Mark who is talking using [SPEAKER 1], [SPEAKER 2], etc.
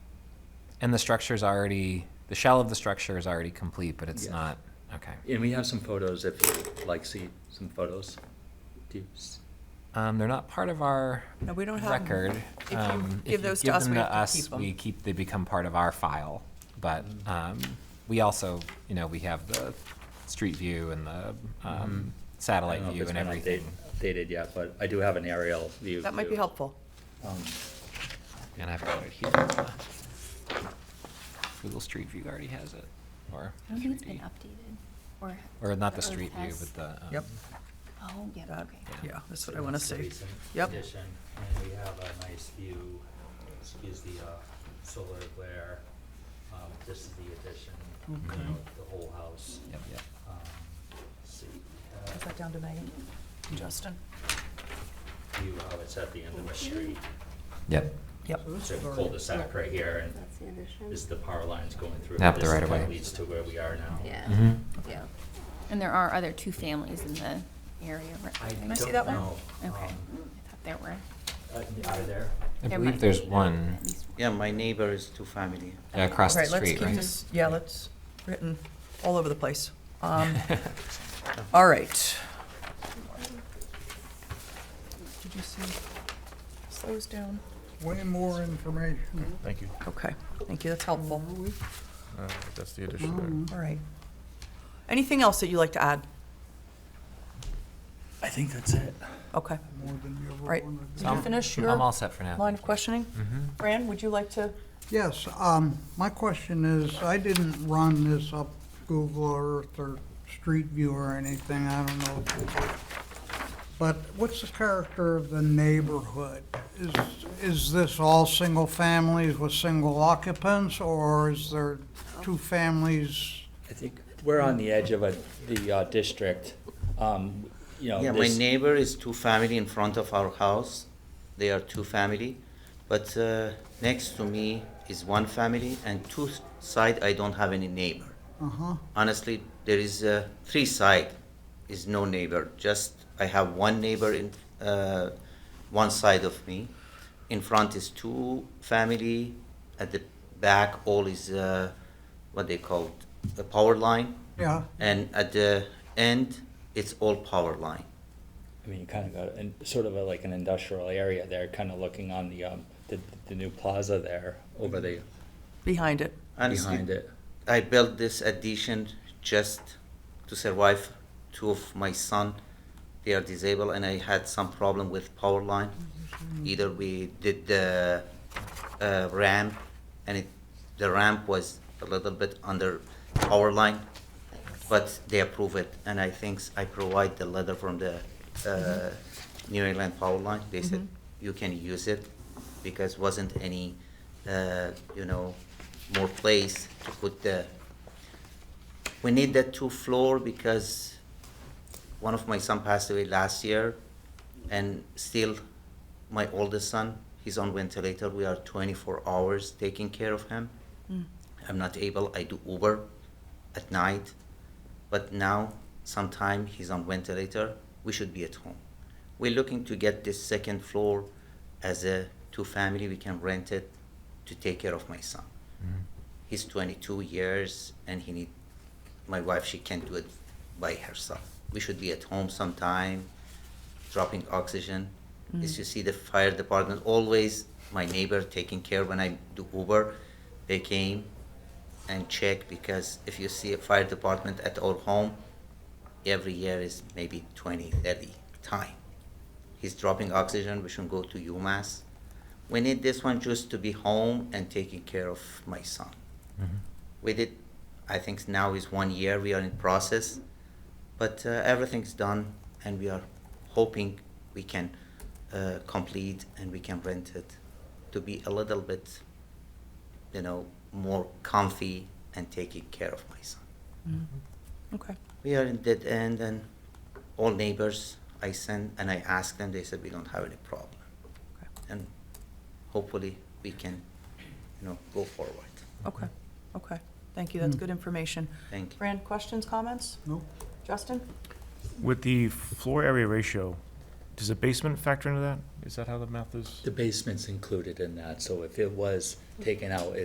[SPEAKER 1] And the structure's already, the shell of the structure is already complete, but it's
[SPEAKER 2] Yes.
[SPEAKER 1] not, okay.
[SPEAKER 2] And we have some photos if you'd like see some photos. Do you s-
[SPEAKER 1] Um, they're not part of our
[SPEAKER 3] No, we don't have 'em.
[SPEAKER 1] record.
[SPEAKER 3] If you
[SPEAKER 1] Um,
[SPEAKER 3] give those to us, we have to keep 'em.
[SPEAKER 1] we keep, they become part of our file. But,
[SPEAKER 2] Mm-hmm.
[SPEAKER 1] um, we also, you know, we have the street view and the, um,
[SPEAKER 2] Mm-hmm. I
[SPEAKER 1] satellite
[SPEAKER 2] don't know if
[SPEAKER 1] view
[SPEAKER 2] it's
[SPEAKER 1] and
[SPEAKER 2] been update-
[SPEAKER 1] everything.
[SPEAKER 2] updated yet, but I do have an aerial view.
[SPEAKER 3] That might be
[SPEAKER 2] too.
[SPEAKER 3] helpful.
[SPEAKER 2] Um,
[SPEAKER 1] And I've got it here. Google Street View already has it, or.
[SPEAKER 4] I don't think it's been
[SPEAKER 1] 3D.
[SPEAKER 4] updated, or.
[SPEAKER 1] Or not the
[SPEAKER 4] Earth
[SPEAKER 1] Street View,
[SPEAKER 4] has-
[SPEAKER 1] but the. um,
[SPEAKER 3] Yep.
[SPEAKER 4] Oh, yeah,
[SPEAKER 3] That-
[SPEAKER 4] okay.
[SPEAKER 3] Yeah, that's what I want to
[SPEAKER 5] That's the
[SPEAKER 3] see.
[SPEAKER 5] recent
[SPEAKER 3] Yep.
[SPEAKER 5] Addition, and we have a nice view, excuse the, uh, solar glare, um, this is the addition, you
[SPEAKER 3] Okay.
[SPEAKER 5] know, the whole house.
[SPEAKER 1] Yep, yep.
[SPEAKER 5] Um, let's see,
[SPEAKER 3] Is
[SPEAKER 5] uh,
[SPEAKER 3] that down to Megan? Justin?
[SPEAKER 5] view how it's at the end of a street,
[SPEAKER 1] Yep.
[SPEAKER 3] Yep.
[SPEAKER 5] so cul-de-sac right here, and
[SPEAKER 4] That's the addition.
[SPEAKER 5] this is the power lines going through.
[SPEAKER 1] Yep, the
[SPEAKER 5] This is
[SPEAKER 1] right of
[SPEAKER 5] what
[SPEAKER 1] way.
[SPEAKER 5] Leads to where we are now.
[SPEAKER 4] Yeah,
[SPEAKER 1] Mhm.
[SPEAKER 2] Mm-hmm.
[SPEAKER 4] yeah. And there are other two families in the area, right?
[SPEAKER 5] I
[SPEAKER 3] I
[SPEAKER 5] don't
[SPEAKER 3] see that one?
[SPEAKER 5] know,
[SPEAKER 4] Okay, I
[SPEAKER 5] um,
[SPEAKER 4] thought there were.
[SPEAKER 5] uh, Are there?
[SPEAKER 1] I
[SPEAKER 4] there
[SPEAKER 1] believe
[SPEAKER 4] might
[SPEAKER 1] there's
[SPEAKER 4] be
[SPEAKER 1] one
[SPEAKER 4] at least one.
[SPEAKER 6] Yeah, my neighbor is two family.
[SPEAKER 1] yeah, across the
[SPEAKER 3] Right, let's
[SPEAKER 1] street,
[SPEAKER 3] keep
[SPEAKER 1] right?
[SPEAKER 3] this, yeah, let's, written all over the place. Um, All right. Did you see? Slows down.
[SPEAKER 7] Way more information.
[SPEAKER 8] Thank you.
[SPEAKER 3] Okay, thank you, that's helpful.
[SPEAKER 8] Uh, That's the addition there.
[SPEAKER 1] Mm-hmm.
[SPEAKER 3] All right. Anything else that you'd like to add?
[SPEAKER 2] I think that's it.
[SPEAKER 3] Okay,
[SPEAKER 7] More than you ever
[SPEAKER 3] Right.
[SPEAKER 7] wanted.
[SPEAKER 3] Did you
[SPEAKER 1] I'm-
[SPEAKER 3] finish
[SPEAKER 1] I'm all
[SPEAKER 3] your
[SPEAKER 1] set for now.
[SPEAKER 3] line of questioning? Fran, would you like to?
[SPEAKER 7] Yes, um, my question is, I didn't run this up Google Earth or Street View or anything, I don't know. But what's the character of the neighborhood? Is, is this all single families with single occupants, or is there two families?
[SPEAKER 2] I think we're on the edge of a, the, uh, district, um, you know,
[SPEAKER 6] Yeah, my
[SPEAKER 2] this-
[SPEAKER 6] neighbor is two family in front of our house. They are two family, but uh, next to me is one family, and two s- side I don't have any neighbor.
[SPEAKER 7] Uh-huh,
[SPEAKER 6] Honestly, there is uh, three side is no neighbor. Just I have one neighbor in uh, one side of me. In front is two family. At the back, all is uh, what they call a power line.
[SPEAKER 7] yeah,
[SPEAKER 6] and at the end it's all power line
[SPEAKER 2] I mean, you kind of got, and sort of a- like an industrial area there, kind of looking on the, um, the, the new plaza there over the,
[SPEAKER 3] Behind it.
[SPEAKER 6] Honestly,
[SPEAKER 2] behind it.
[SPEAKER 6] i built this addition just to survive two of my son they are disabled and i had some problem with power line either we did the uh, ramp and it, the ramp was a little bit under power line but they approve it and i think i provide the letter from the uh, new england power line they said you can use it because wasn't any uh, you know more place to put the we need that two floor because one of my son passed away last year and still my oldest son he's on ventilator we are 24 hours taking care of him i'm not able i do uber at night but now sometime he's on ventilator we should be at home we're looking to get this second floor as a two family we can rent it to take care of my son he's 22 years and he need my wife she can't do it by herself we should be at home sometime dropping oxygen is you see the fire department always my neighbor taking care when i do uber they came and check because if you see a fire department at our home every year is maybe 20 30 time he's dropping oxygen we should go to umass we need this one just to be home and taking care of my son we did i think now is one year we are in process but uh, everything's done and we are hoping we can uh, complete and we can rent it to be a little bit you know more comfy and taking care of my son
[SPEAKER 3] Okay.
[SPEAKER 6] we are in dead end and all neighbors i send and i ask them they said we don't have any problem
[SPEAKER 3] Okay.
[SPEAKER 6] and hopefully we can you know go forward
[SPEAKER 3] Okay, okay. Thank you, that's good information.
[SPEAKER 6] thank you
[SPEAKER 3] Fran, questions, comments?
[SPEAKER 7] no?
[SPEAKER 3] Justin?
[SPEAKER 8] With the floor area ratio, does the basement factor into that? Is that how the math is?
[SPEAKER 2] The basement's included in that, so if it was taken out,